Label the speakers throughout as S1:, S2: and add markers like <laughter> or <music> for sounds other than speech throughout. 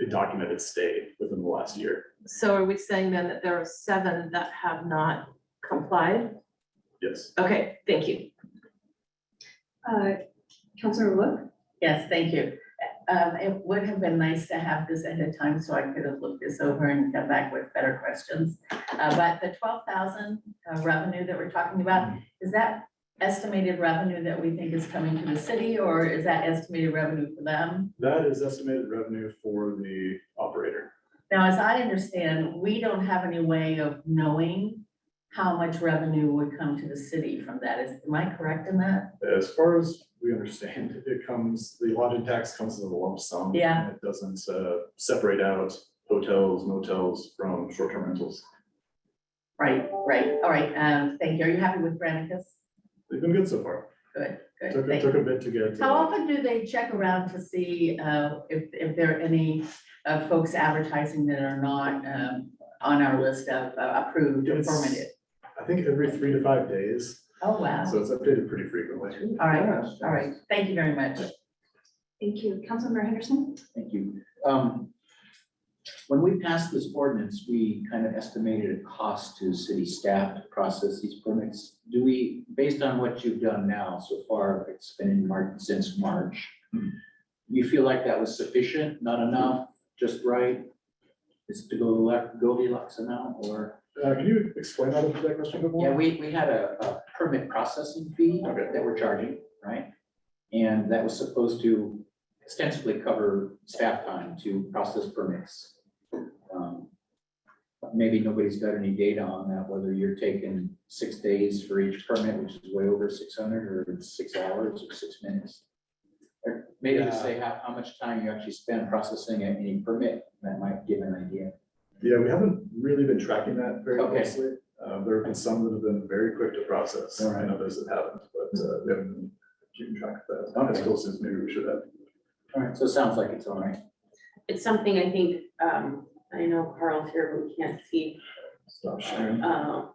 S1: a documented stay within the last year.
S2: So are we saying then that there are seven that have not complied?
S1: Yes.
S2: Okay, thank you.
S3: Uh, Counselor Look,
S4: Yes, thank you. Um, it would have been nice to have this ahead of time, so I could have looked this over and come back with better questions. Uh, but the twelve thousand uh, revenue that we're talking
S1: Mm-hmm.
S4: about, is that estimated revenue that we think is coming to the city, or is that estimated revenue for them?
S1: That is estimated revenue for the operator.
S4: Now, as I understand, we don't have any way of knowing how much revenue would come to the city from that. Is, am I correct in that?
S1: As far as we understand, <laughs> it comes, the lodging tax comes in a lump sum.
S4: Yeah.
S1: It doesn't uh, separate out hotels, motels from short-term rentals.
S4: Right, right, all right, um, thank you. Are you happy with Granicus?
S1: They've been good so far.
S4: Good, good.
S1: Took,
S4: thank
S1: took a bit to get.
S4: How
S1: uh,
S4: often do they check around to see uh, if, if there are any uh, folks advertising that are not um, on our list of uh, approved or
S1: Yes.
S4: permitted?
S1: I think every three to five days,
S4: Oh, wow.
S1: so it's updated pretty frequently.
S4: All right, all right. Thank you very much.
S3: thank you. Councilmember Henderson?
S5: Thank you. Um, When we passed this ordinance, we kind of estimated a cost to city staff to process these permits. Do we, based on what you've done now so far, it's been in March, since March, you feel like that was sufficient, not enough, just right? Is it to go left, Goldilocks amount or?
S1: Uh, can you explain that, that question a bit more?
S5: Yeah, we, we had a, a permit processing fee
S1: Okay.
S5: that we're charging, right? And that was supposed to ostensibly cover staff time to process permits. Um, but Maybe nobody's got any data on that, whether you're taking six days for each permit, which is way over six hundred, or it's six hours or six minutes. Or Maybe
S1: Yeah.
S5: just say how, how much time you actually spend processing any permit, that might give an idea.
S1: Yeah, we haven't really been tracking that very
S5: Okay.
S1: closely. Uh, there have been some that have been very quick to process,
S5: All right.
S1: and others that haven't, but, uh, we haven't been keeping track of that. As
S5: Okay.
S1: close as maybe we should have.
S5: All right, so it sounds like it's all right.
S6: it's something I think, um, I know Carl's here, but we can't see,
S1: Stop sharing.
S6: uh,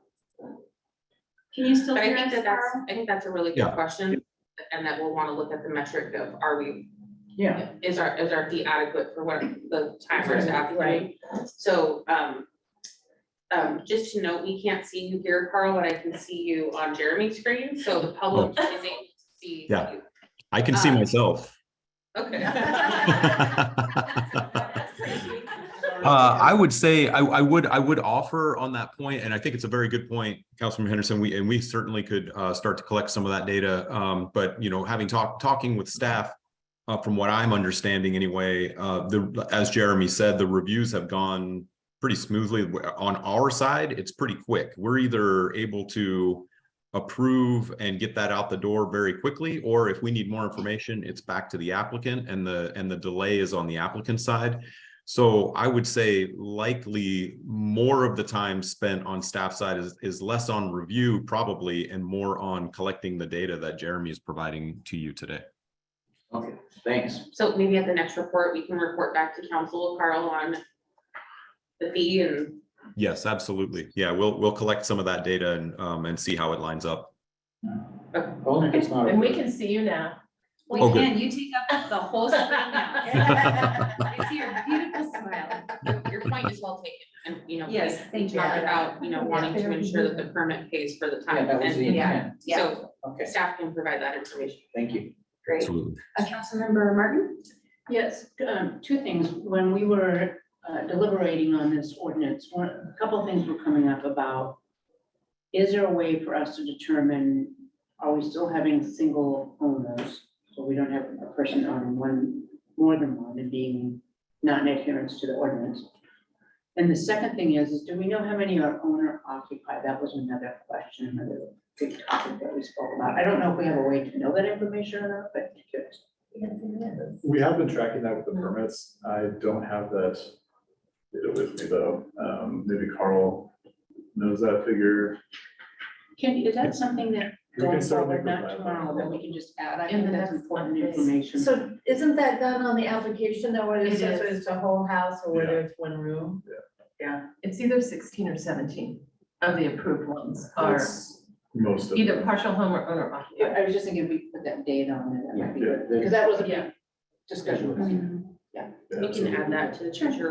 S3: Can you still
S6: but I
S3: hear
S6: think
S3: us,
S6: that that's,
S3: Carl?
S6: I think that's a really good question. And that we'll wanna look at the metric of, are we,
S5: Yeah.
S6: is our, is our fee adequate for what the timers have, right?
S4: Right.
S6: So, um, um, just to note, we can't see you here, Carl, but I can see you on Jeremy's screen, so the public is able to see you.
S7: Yeah. I can see
S6: Um,
S7: myself.
S6: Okay. <laughs> That's crazy.
S7: <laughs> Uh, I would say, I, I would, I would offer on that point, and I think it's a very good point, Councilman Henderson, we, and we certainly could, uh, start to collect some of that data. Um, but, you know, having talked, talking with staff, uh, from what I'm understanding anyway, uh, the, as Jeremy said, the reviews have gone pretty smoothly. On our side, it's pretty quick. We're either able to approve and get that out the door very quickly, or if we need more information, it's back to the applicant and the, and the delay is on the applicant side. So I would say likely more of the time spent on staff side is, is less on review probably and more on collecting the data that Jeremy is providing to you today.
S5: Okay, thanks.
S6: So maybe at the next report, we can report back to council, Carl, on the fee and,
S7: Yes, absolutely. Yeah, we'll, we'll collect some of that data and, um, and see how it lines up.
S5: Only if it's not. a-
S2: And we can see you now.
S3: We
S7: Oh, good.
S3: can, you take up the whole screen
S2: <laughs>
S3: now. I see your beautiful smile.
S6: your- your point is well taken. And, you know, we
S3: Yes, thank
S6: we
S3: you.
S6: talked about, you know, wanting to ensure that the permit pays for the
S5: Yeah,
S6: time.
S5: that was the
S6: And
S5: intent.
S3: Yeah.
S6: so
S5: Okay,
S6: staff can provide that information.
S5: thank you.
S6: Great.
S7: Absolutely.
S3: Uh, Councilmember Martin?
S8: Yes, um, two things. When we were uh, deliberating on this ordinance, one, a couple of things were coming up about, is there a way for us to determine, are we still having single owners? So we don't have a person owning one, more than one and being not in adherence to the ordinance. And the second thing is, is do we know how many are owner occupied? That was another question, another big topic that we spoke about. I don't know if we have a way to know that information or not, but curious.
S1: We have been tracking that with the permits. I don't have that data with me though. Um, maybe Carl knows that figure.
S8: Can, is that something that
S1: We can
S8: going
S1: certainly
S8: forward, not
S1: provide that.
S8: tomorrow, that we can just add? I
S2: In
S8: think
S2: the
S8: that's
S2: next
S8: important
S2: one, please.
S8: information.
S3: So isn't that done on the application though, whether
S2: It
S3: it says
S2: is.
S3: it's a whole house or whether it's one room?
S2: It's either sixteen or seventeen of the approved ones are
S1: That's Most of
S2: either
S1: them.
S2: partial home or owner
S8: I
S2: occupied.
S8: I was just thinking, if we put that date on it, that might be
S1: Yeah,
S2: Mm-hmm.
S8: good, because that was a big discussion.
S5: Schedule.
S8: Yeah.
S1: Yeah,
S6: We
S1: so
S6: can add that to the treasure